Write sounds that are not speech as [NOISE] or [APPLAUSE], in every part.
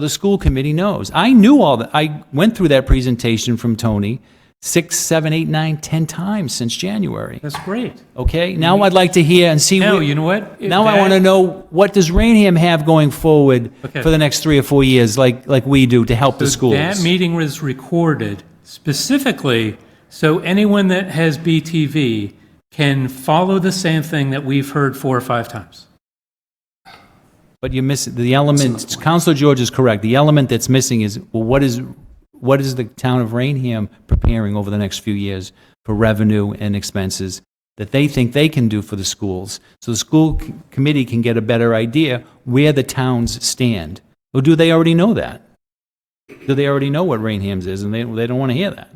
The school committee knows. I knew all that. I went through that presentation from Tony six, seven, eight, nine, ten times since January. That's great. Okay, now I'd like to hear and see. Now, where- you know what? Now I want to know, what does Rainham have going forward Okay. for the next three or four years, like, like we do, to help the schools? That meeting was recorded specifically so anyone that has BTV can follow the same thing that we've heard four or five times. But you miss, the element, Counselor George is correct, the element that's missing is, well, what is, what is the town of Rainham preparing over the next few years for revenue and expenses that they think they can do for the schools? So the school c- committee can get a better idea where the towns stand. Or do they already know that? Do they already know what Rainham's is, and they, they don't want to hear that?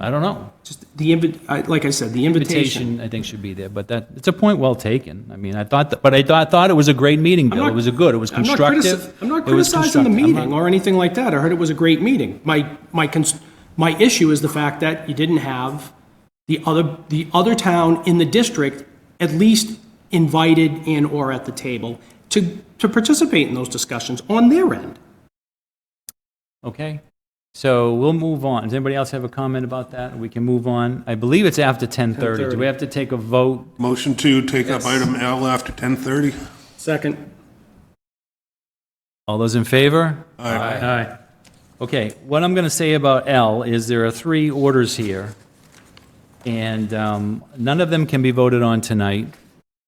I don't know. Just the invi- I, like I said, the invitation. Invitation, I think, should be there, but that, it's a point well taken. I mean, I thought, that- but I thought, thought it was a great meeting, Bill. not- It was a good, it was I'm not critici- constructive. I'm not It was criticizing the constructive. I'm not- meeting or anything like that. I heard it was a great meeting. My, my, cons- my issue is the fact that you didn't have the other, the other town in the district at least invited and or at the table to, to participate in those discussions on their end. Okay, so we'll move on. Does anybody else have a comment about that? We can move on. I believe it's after 10:30. Do we have to take a vote? Motion to take up item L after 10:30. Second. All those in favor? Aye. Aye. Okay, what I'm going to say about L is there are three orders here, and um, none of them can be voted on tonight.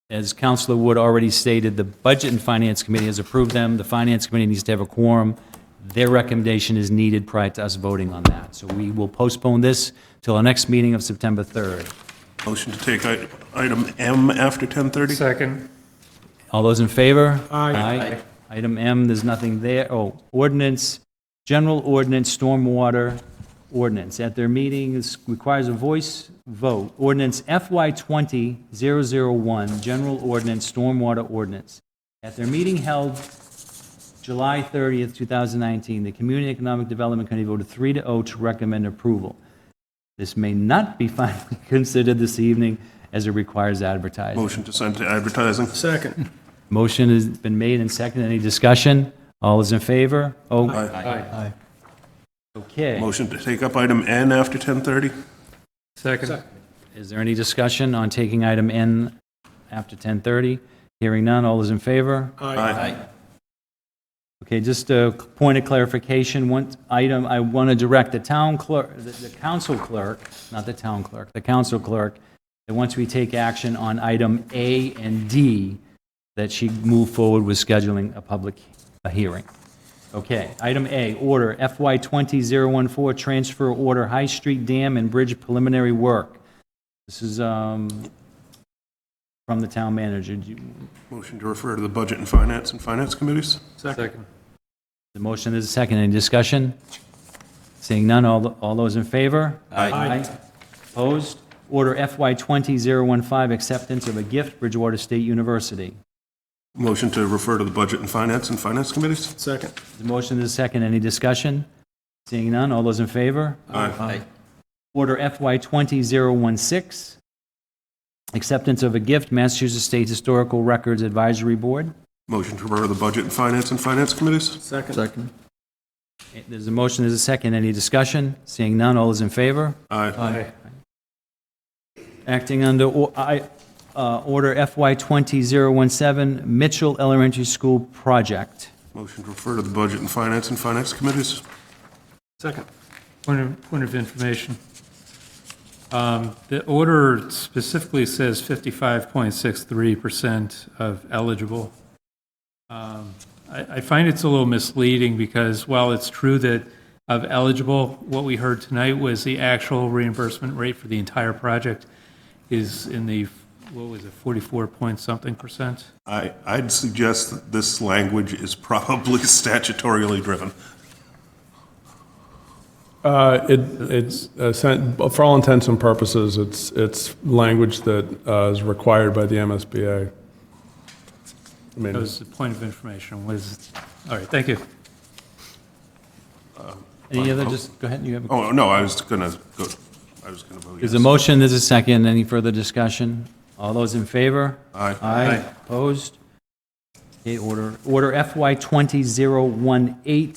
As Counselor Wood already stated, the Budget and Finance Committee has approved them. The Finance Committee needs to have a quorum. Their recommendation is needed prior to us voting on that. So we will postpone this till our next meeting of September 3rd. Motion to take i- item M after 10:30. Second. All those in favor? Aye. Item M, there's nothing there. Oh, ordinance, general ordinance, stormwater ordinance. At their meeting, this requires a voice vote. Ordinance FY 20-001, general ordinance, stormwater ordinance. At their meeting held July 30th, 2019, the Community Economic Development Committee voted 3 to 0 to recommend approval. This may not be [LAUGHS] finally considered this evening as it requires advertising. Motion to send to advertising. Second. Motion has been made and seconded. Any discussion? All is in favor? Oh, Okay. Motion to take up item N after 10:30. Second. Is there any discussion on taking item N after 10:30? Hearing none. All is in favor? Aye. Okay, just a point of clarification, one item, I want to direct the town clerk, the- the council clerk, not the town clerk, the council clerk, that once we take action on item A and D, that she move forward with scheduling a public a hearing. Okay, item A, order FY 20014, transfer order High Street Dam and Bridge preliminary work. This is um, from the town manager. Do you- Motion to refer to the Budget and Finance and Finance Committees. Second. The motion is a second. Any discussion? Seeing none, all, all those in favor? Aye. Opposed? Order FY 20015, acceptance of a gift, Bridgewater State University. Motion to refer to the Budget and Finance and Finance Committees. Second. The motion is a second. Any discussion? Seeing none, all those in favor? Aye. Order FY 20016, acceptance of a gift, Massachusetts State Historical Records Advisory Board. Motion to refer to the Budget and Finance and Finance Committees. Second. There's a motion, there's a second. Any discussion? Seeing none, all those in favor? Aye. Acting under or- I- uh, Order FY 20017, Mitchell Elementary School Project. Motion to refer to the Budget and Finance and Finance Committees. Second. Point of, point of information. Um, The order specifically says 55.63% of eligible. Um, I, I find it's a little misleading because while it's true that of eligible, what we heard tonight was the actual reimbursement rate for the entire project is in the, what was it, 44 point something percent? I, I'd suggest that this language is probably [LAUGHS] statutorily driven. Uh, It, it's, uh, sen- for all intents and purposes, it's, it's language that uh, is required by the MSBA. I That mean, was the point of information, was, all right, thank you. Any other, just, go ahead, you have a... Oh, no, I was gonna go, I was gonna vote yes. There's a motion, there's a second. Any further discussion? All those in favor? Aye. Aye. Opposed? Okay, order, order FY 20018